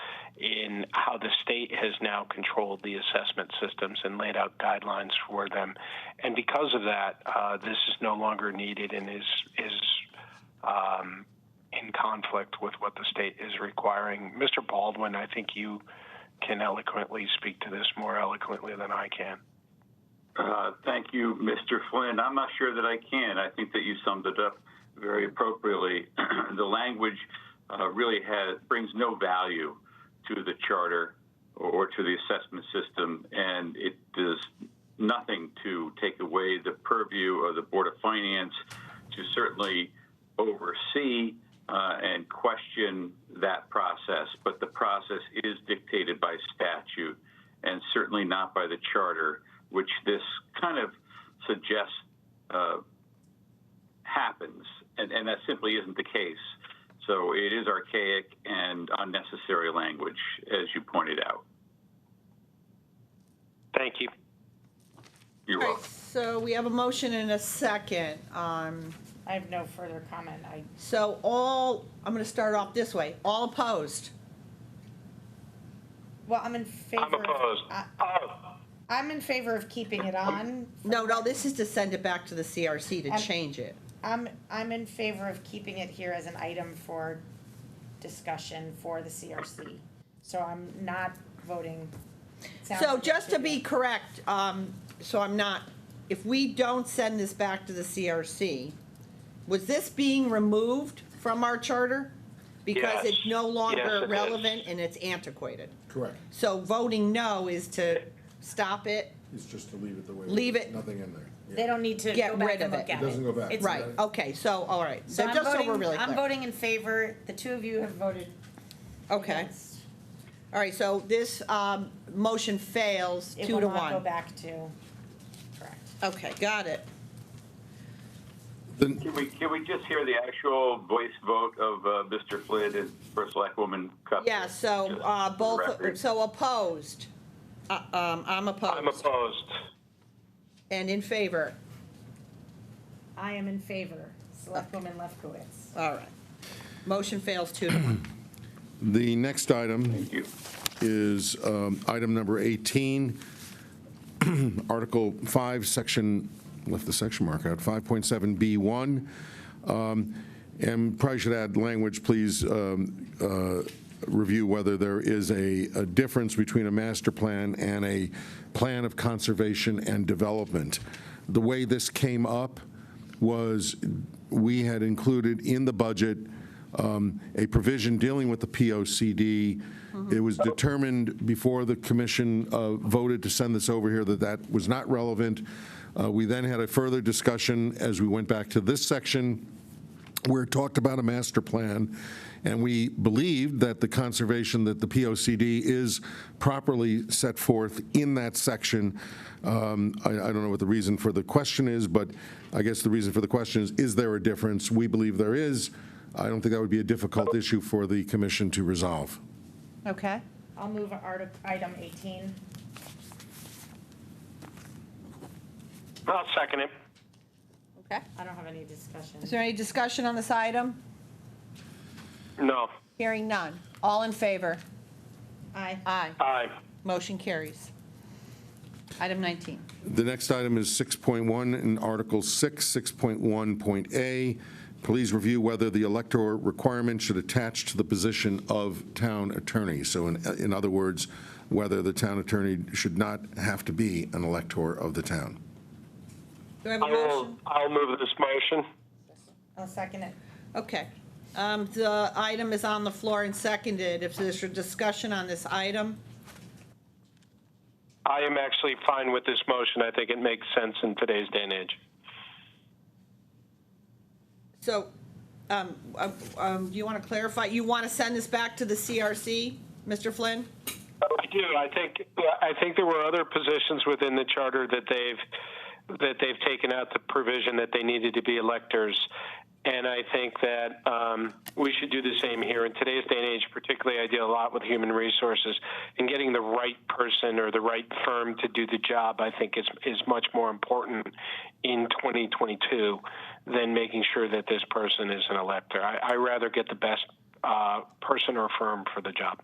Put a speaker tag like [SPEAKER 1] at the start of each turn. [SPEAKER 1] in how the state has now controlled the assessment systems and laid out guidelines for them. And because of that, uh, this is no longer needed and is is um, in conflict with what the state is requiring. Mr. Baldwin, I think you can eloquently speak to this more eloquently than I can.
[SPEAKER 2] Uh, Thank you, Mr. Flynn. I'm not sure that I can. I think that you summed it up very appropriately. the language uh, really has, brings no value to the charter or, or to the assessment system, and it does nothing to take away the purview of the Board of Finance to certainly oversee uh, and question that process. But the process is dictated by statute and certainly not by the charter which this kind of suggests uh, happens, and, and, that simply isn't the case. So it is archaic and unnecessary language, as you pointed out.
[SPEAKER 1] Thank you.
[SPEAKER 2] You're
[SPEAKER 3] All right,
[SPEAKER 2] welcome.
[SPEAKER 3] So we have a motion and a second. Um,
[SPEAKER 4] I have no further comment. I,
[SPEAKER 3] So all, I'm going to start off this way, all opposed?
[SPEAKER 4] well, I'm in favor.
[SPEAKER 1] I'm opposed.
[SPEAKER 4] I,
[SPEAKER 1] Oh,
[SPEAKER 4] I'm in favor of keeping it on.
[SPEAKER 3] No, no, this is to send it back to the CRC to
[SPEAKER 4] Um,
[SPEAKER 3] change it.
[SPEAKER 4] I'm, I'm in favor of keeping it here as an item for discussion for the CRC. So I'm not voting. Sounds
[SPEAKER 3] So
[SPEAKER 4] like it
[SPEAKER 3] just to
[SPEAKER 4] should
[SPEAKER 3] be correct, um, so I'm not, if we don't send this back to the CRC, was this being removed from our charter? Because it's
[SPEAKER 1] Yes.
[SPEAKER 3] no
[SPEAKER 1] Yes, it
[SPEAKER 3] longer
[SPEAKER 1] is.
[SPEAKER 3] relevant and it's antiquated.
[SPEAKER 5] Correct.
[SPEAKER 3] So voting no is to stop it,
[SPEAKER 5] It's just to leave it the way.
[SPEAKER 3] Leave it.
[SPEAKER 5] Nothing in there. Yeah.
[SPEAKER 4] They don't need to
[SPEAKER 3] Get
[SPEAKER 4] go back
[SPEAKER 3] rid
[SPEAKER 4] and
[SPEAKER 3] of
[SPEAKER 4] look
[SPEAKER 3] it.
[SPEAKER 4] at
[SPEAKER 3] It
[SPEAKER 4] it.
[SPEAKER 5] doesn't go back.
[SPEAKER 4] It's-
[SPEAKER 3] right, okay, so, all right,
[SPEAKER 4] So
[SPEAKER 3] so
[SPEAKER 4] I'm
[SPEAKER 3] just so we're
[SPEAKER 4] voting,
[SPEAKER 3] really
[SPEAKER 4] I'm
[SPEAKER 3] clear.
[SPEAKER 4] voting in favor. The two of you have voted
[SPEAKER 3] Okay,
[SPEAKER 4] against.
[SPEAKER 3] all right, so this, um, motion fails
[SPEAKER 4] It
[SPEAKER 3] two
[SPEAKER 4] will
[SPEAKER 3] to
[SPEAKER 4] not go
[SPEAKER 3] one.
[SPEAKER 4] back to, correct.
[SPEAKER 3] Okay, got it.
[SPEAKER 5] Then,
[SPEAKER 2] Can we, can we just hear the actual voice vote of uh, Mr. Flynn and First Black Woman Cup?
[SPEAKER 3] Yeah, so,
[SPEAKER 2] Just
[SPEAKER 3] uh,
[SPEAKER 2] for the
[SPEAKER 3] both,
[SPEAKER 2] record.
[SPEAKER 3] so opposed. Uh, um, I'm
[SPEAKER 1] I'm
[SPEAKER 3] opposed.
[SPEAKER 1] opposed.
[SPEAKER 3] And in favor,
[SPEAKER 4] I am in favor. Selectwoman Lefkowitz.
[SPEAKER 3] all right. Motion fails two to one.
[SPEAKER 5] the next item
[SPEAKER 2] Thank you.
[SPEAKER 5] is um, item number 18, Article 5, Section, left the section mark out, 5.7B1. Um, And probably should add language, please um, uh, review whether there is a a difference between a master plan and a plan of conservation and development. The way this came up was we had included in the budget um, a provision dealing with the POCD. It was determined before the commission uh, voted to send this over here that that was not relevant. Uh, We then had a further discussion as we went back to this section where it talked about a master plan, and we believed that the conservation, that the POCD is properly set forth in that section. Um, I I don't know what the reason for the question is, but I guess the reason for the question is, is there a difference? We believe there is. I don't think that would be a difficult issue for the commission to resolve.
[SPEAKER 3] Okay.
[SPEAKER 4] I'll move article, item eighteen.
[SPEAKER 1] I'll second it.
[SPEAKER 3] Okay.
[SPEAKER 4] I don't have any discussion.
[SPEAKER 3] Is there any discussion on this item?
[SPEAKER 1] No.
[SPEAKER 3] Hearing none. All in favor?
[SPEAKER 4] Aye.
[SPEAKER 3] Aye.
[SPEAKER 1] Aye.
[SPEAKER 3] Motion carries. Item 19.
[SPEAKER 5] The next item is 6.1 in Article 6, 6.1.a. Please review whether the elector requirement should attach to the position of town attorney. So in, in other words, whether the town attorney should not have to be an elector of the town.
[SPEAKER 3] Do I have a
[SPEAKER 1] I will,
[SPEAKER 3] motion?
[SPEAKER 1] I'll move this motion.
[SPEAKER 4] I'll second it.
[SPEAKER 3] Okay. Um, The item is on the floor and seconded. If there's a discussion on this item,
[SPEAKER 1] I am actually fine with this motion. I think it makes sense in today's day and age.
[SPEAKER 3] so um, um, um, do you want to clarify? You want to send this back to the CRC, Mr. Flynn?
[SPEAKER 1] I do. I think I think there were other positions within the charter that they've that they've taken out the provision that they needed to be electors, and I think that um, we should do the same here. In today's day and age, particularly, I deal a lot with human resources, and getting the right person or the right firm to do the job, I think, is is much more important in 2022 than making sure that this person is an elector. I, I rather get the best uh, person or firm for the job.